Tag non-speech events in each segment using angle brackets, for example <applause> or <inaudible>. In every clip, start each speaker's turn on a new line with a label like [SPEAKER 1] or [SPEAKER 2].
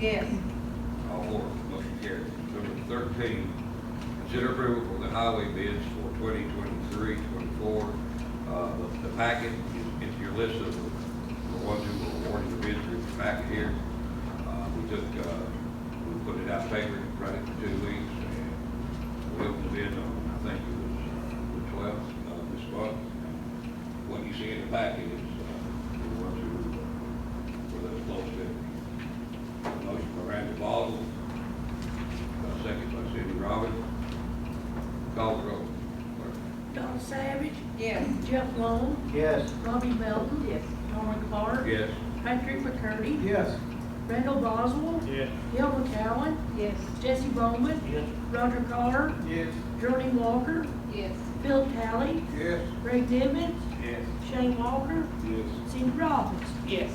[SPEAKER 1] Yes.
[SPEAKER 2] All four, motion carried. Number thirteen, consider approval for the highway bids for 2023-24. Uh, the- the packet is, is your list of the ones who were awarded the bids through the packet here. Uh, we took, uh, we put it out paper, read it for two weeks, and we opened the bid on, I think it was uh, the twelfth of this month. What you see in the packet is, uh, the ones who were the lowest bidder. Motion by Randy Boswell, uh, second by Cindy Robbins. Call the roll.
[SPEAKER 3] Donna Savage,
[SPEAKER 1] Yes.
[SPEAKER 3] Jeff Long,
[SPEAKER 4] Yes.
[SPEAKER 3] Robbie Melton,
[SPEAKER 1] Yes.
[SPEAKER 3] Lauren Clark,
[SPEAKER 2] Yes.
[SPEAKER 3] Patrick McCurdy,
[SPEAKER 4] Yes.
[SPEAKER 3] Randall Boswell,
[SPEAKER 4] Yes.
[SPEAKER 3] Gil McCowen,
[SPEAKER 1] Yes.
[SPEAKER 3] Jesse Bowman,
[SPEAKER 4] Yes.
[SPEAKER 3] Roger Carr,
[SPEAKER 4] Yes.
[SPEAKER 3] Geraldine Walker,
[SPEAKER 1] Yes.
[SPEAKER 3] Phil Talley,
[SPEAKER 2] Yes.
[SPEAKER 3] Greg Nivens,
[SPEAKER 4] Yes.
[SPEAKER 3] Shane Walker,
[SPEAKER 4] Yes.
[SPEAKER 3] Cindy Robbins.
[SPEAKER 1] Yes.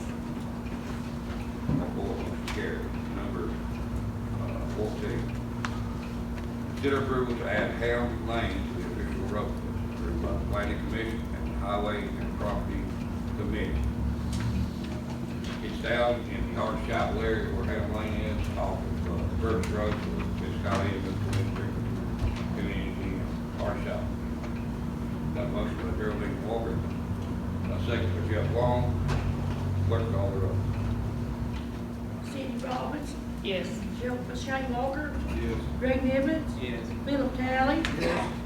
[SPEAKER 2] Number four, motion carried. Number uh, fourteen, consider approval to add Helm Lane to the official road list approved by the planning commission and highway and property committee. It's down in the hard shop area where Helm Lane is, off of uh, Burris Road, so it's got in the district, community, hard shop. Got a motion by Geraldine Walker, a second by Jeff Long, clerk call the roll.
[SPEAKER 3] Cindy Robbins,
[SPEAKER 1] Yes.
[SPEAKER 3] Gerald- Shane Walker,
[SPEAKER 4] Yes.
[SPEAKER 3] Greg Nivens,
[SPEAKER 4] Yes.
[SPEAKER 3] Philip Talley,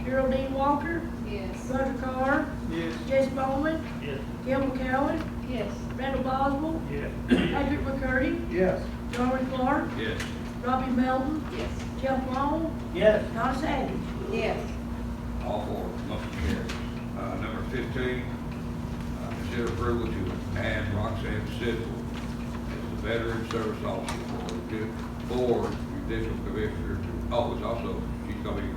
[SPEAKER 3] Geraldine Walker,
[SPEAKER 1] Yes.
[SPEAKER 3] Roger Carr,
[SPEAKER 4] Yes.
[SPEAKER 3] Jesse Bowman,
[SPEAKER 4] Yes.
[SPEAKER 3] Gil McCowen,
[SPEAKER 1] Yes.
[SPEAKER 3] Randall
[SPEAKER 4] <clears throat>
[SPEAKER 3] Boswell,
[SPEAKER 4] Yes.
[SPEAKER 3] Patrick McCurdy,
[SPEAKER 4] Yes.
[SPEAKER 3] Lauren Clark,
[SPEAKER 2] Yes.
[SPEAKER 3] Robbie Melton,
[SPEAKER 1] Yes.
[SPEAKER 3] Jeff Long,
[SPEAKER 4] Yes.
[SPEAKER 3] Donna Savage.
[SPEAKER 1] Yes.
[SPEAKER 2] All four, motion carries. Uh, number fifteen, uh, consider approval to add Roxanne Sidwell as the Veteran Service Officer for the ju- for Judicial Commissioner. Oh, it's also, she's gonna be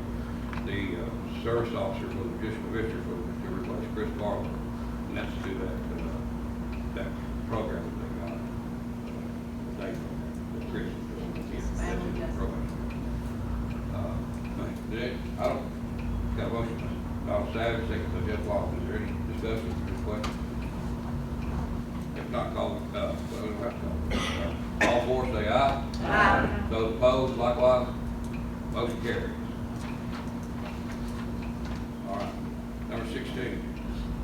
[SPEAKER 2] the, uh, Service Officer for the Judicial Commissioner for, to replace Chris Barlow. And that's to that, uh, that program that they got. uh, They, that Chris, that's the program. Uh, Nick, I don't, got a motion, Donald Savage, second by Jeff Long, is there any discussion or question? If not, call, uh, well, we don't have to call. all four say aye.
[SPEAKER 1] Aye.
[SPEAKER 2] Those opposed, likewise, motion carries. All right, number sixteen,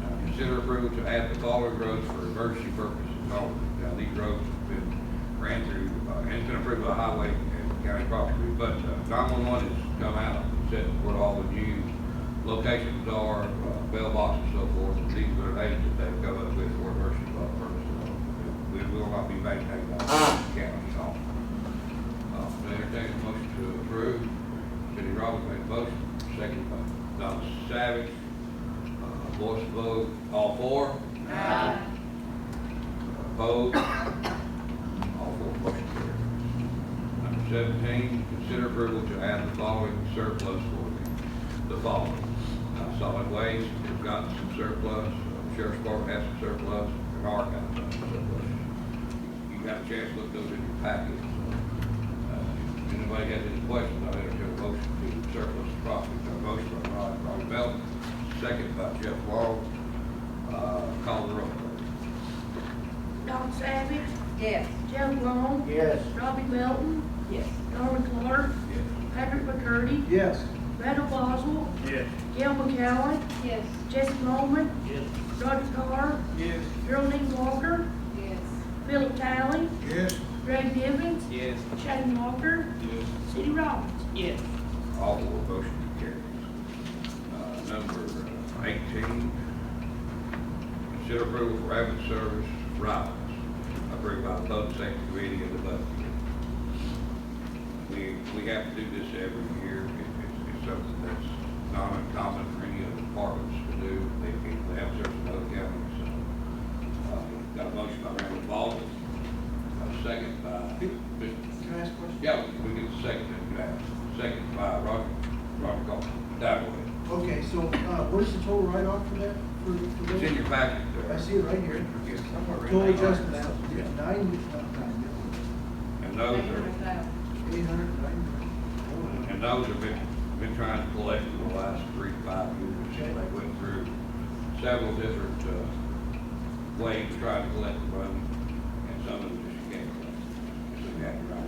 [SPEAKER 2] uh, consider approval to add the following roads for emergency purposes only. Now, these roads have been ran through, uh, and it's been approved by highway and county property, but uh, nine-one-one has come out and said what all the new locations are, uh, bell boxes and so forth, and these are the names that they've come up with for emergency purposes. We will not be maintaining that county at all. Uh, I entertain a motion to approve. Cindy Robbins made a motion, second by Donna Savage. Uh, Voice vote, all four? Opposed? <coughs> All four motion carried. Number seventeen, consider approval to add the following surplus for the, the following. Uh, Solid waste, we've got some surplus, uh, Sheriff's Department has some surplus, and our got some surplus. You got a chance to look those in your packets. Uh, If anybody has any questions, I'll entertain a motion to surplus the property. Got a motion by Rod, Rod Belt, second by Jeff Long. Uh, Call the roll, please.
[SPEAKER 3] Donna Savage,
[SPEAKER 1] Yes.
[SPEAKER 3] Jeff Long,
[SPEAKER 4] Yes.
[SPEAKER 3] Robbie Melton,
[SPEAKER 1] Yes.
[SPEAKER 3] Lauren Clark,
[SPEAKER 2] Yes.
[SPEAKER 3] Patrick McCurdy,
[SPEAKER 4] Yes.
[SPEAKER 3] Randall Boswell,
[SPEAKER 4] Yes.
[SPEAKER 3] Gil McCowen,
[SPEAKER 1] Yes.
[SPEAKER 3] Jesse Bowman,
[SPEAKER 4] Yes.
[SPEAKER 3] Roger Carr,
[SPEAKER 4] Yes.
[SPEAKER 3] Geraldine Walker,
[SPEAKER 1] Yes.
[SPEAKER 3] Philip Talley,
[SPEAKER 4] Yes.
[SPEAKER 3] Greg Nivens,
[SPEAKER 4] Yes.
[SPEAKER 3] Shane Walker,
[SPEAKER 4] Yes.
[SPEAKER 3] Cindy Robbins.
[SPEAKER 1] Yes.
[SPEAKER 2] All four motion carries. Uh, Number uh, eighteen, consider approval for ambulance service rides approved by the public safety committee and the budget committee. We, we have to do this every year. It- It's, it's something that's not uncommon for any other departments to do. They can, they have service in other counties. so, uh, Got a motion by Randall Baldwin, a second by Mr.
[SPEAKER 4] Can I ask a question?
[SPEAKER 2] Yeah, we can second it, uh, second by Roger, Roger Goff, that way.
[SPEAKER 4] Okay, so, uh, what is the total write-off for that? For for
[SPEAKER 2] It's in
[SPEAKER 4] this?
[SPEAKER 2] your packet there.
[SPEAKER 4] I see it right here.
[SPEAKER 2] Yes.
[SPEAKER 4] Total adjustment, out, yeah, nine, not nine,
[SPEAKER 2] And those are,
[SPEAKER 4] eight hundred, nine.
[SPEAKER 2] and those have been, been trying to collect for the last three, five years.
[SPEAKER 4] Okay.
[SPEAKER 2] They went through several different, uh, ways to try to collect the money, and some of them